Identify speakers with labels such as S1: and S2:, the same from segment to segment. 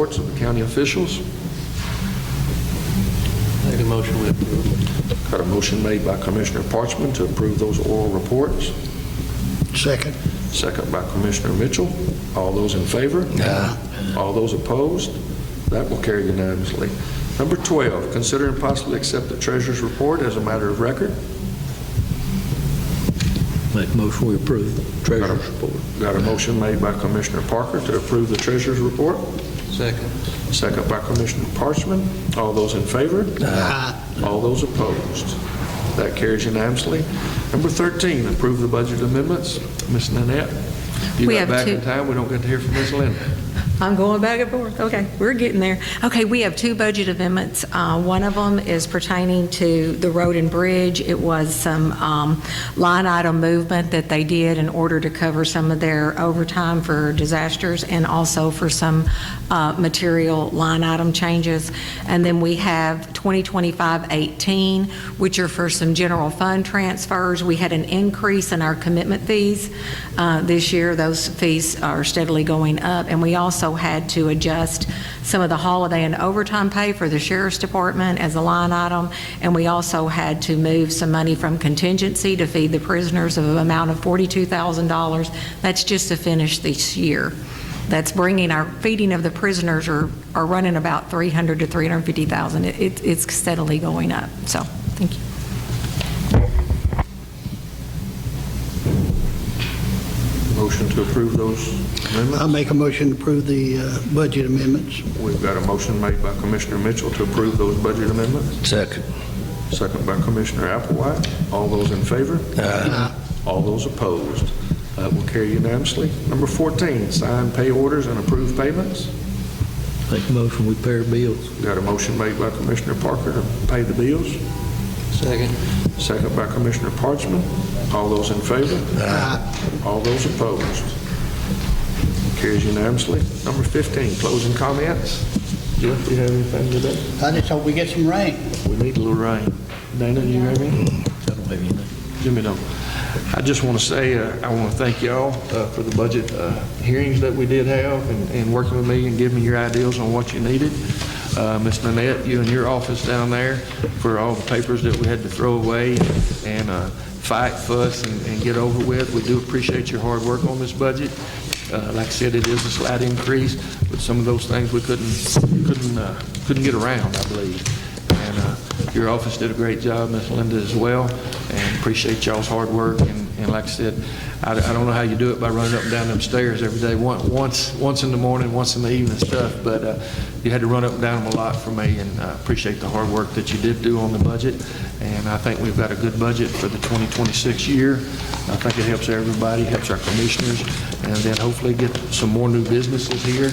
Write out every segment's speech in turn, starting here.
S1: Reports of the county officials.
S2: Make a motion we approve.
S1: Got a motion made by Commissioner Parchman to approve those oral reports,
S3: Second.
S1: second by Commissioner Mitchell. All those in favor? All those opposed? That will carry unanimously. Number 12, consider and possibly accept the treasurer's report as a matter of record.
S2: Make a motion we approve. Treasurer's report.
S1: Got a motion made by Commissioner Parker to approve the treasurer's report,
S2: Second.
S1: second by Commissioner Parchman. All those in favor? All those opposed? That carries unanimously. Number 13, approve the budget amendments. Ms. Nanette, you
S4: We
S1: got
S4: have
S1: back
S4: two.
S1: in time, we don't get to hear from Ms. Linda.
S4: I'm going back and forth. Okay, we're getting there. Okay, we have two budget amendments. Uh, One of them is pertaining to the road and bridge. It was some um, line item movement that they did in order to cover some of their overtime for disasters and also for some uh, material line item changes. And then we have 2025-18, which are for some general fund transfers. We had an increase in our commitment fees uh, this year. Those fees are steadily going up. And we also had to adjust some of the holiday and overtime pay for the sheriff's department as a line item. And we also had to move some money from contingency to feed the prisoners of an amount of $42,000. That's just to finish this year that's bringing our, feeding of the prisoners are, are running about 300 to 350,000. It- It, it's steadily going up, so, thank you.
S1: Motion to approve those
S3: I'll
S1: amendments.
S3: make a motion to approve the uh, budget amendments.
S1: We've got a motion made by Commissioner Mitchell to approve those budget amendments,
S2: Second.
S1: second by Commissioner Applewhite. All those in favor? All those opposed? That will carry unanimously. Number 14, sign pay orders and approve payments.
S2: Make a motion we pair bills.
S1: Got a motion made by Commissioner Parker to pay the bills,
S2: Second.
S1: second by Commissioner Parchman. All those in favor? All those opposed? Carries unanimously. Number 15, closing comments. Jeff, do you have anything today?
S3: I just hope we get some rain.
S1: We need a little rain. Dana, do you have any?
S2: I don't have anything.
S1: Jimmy, no. I just want to say, uh, I want to thank y'all uh, for the budget uh, hearings that we did have and- and working with me and giving me your ideas on what you needed. Uh, Ms. Nanette, you and your office down there for all the papers that we had to throw away and uh, fight, fuss, and- and get over with. We do appreciate your hard work on this budget. Uh, Like I said, it is a slight increase, but some of those things we couldn't, couldn't, uh, couldn't get around, I believe. And uh, your office did a great job, Ms. Linda as well, and appreciate y'all's hard work. And and like I said, I I don't know how you do it by running up and down them stairs every day, one- once, once in the morning, once in the evening and stuff, but uh, you had to run up and down them a lot for me, and I appreciate the hard work that you did do on the budget. And I think we've got a good budget for the 2026 year. I think it helps everybody, helps our commissioners, and then hopefully get some more new businesses here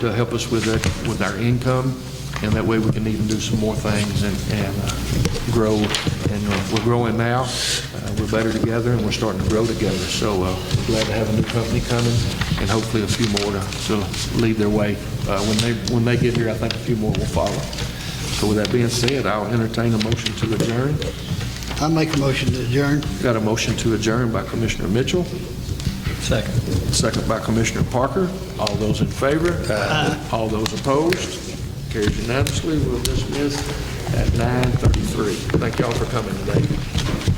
S1: to help us with, uh, with our income and that way we can even do some more things and, and uh, grow. And uh, we're growing now, Uh, we're better together, and we're starting to grow together. So uh, we're glad to have a new company coming, and hopefully a few more to, to lead their way. Uh, When they, when they get here, I think a few more will follow. So with that being said, I'll entertain a motion to adjourn.
S3: I'll make a motion to adjourn.
S1: Got a motion to adjourn by Commissioner Mitchell,
S2: Second.
S1: second by Commissioner Parker. All those in favor? All those opposed? Carries unanimously. We'll dismiss at 9:33. Thank y'all for coming today.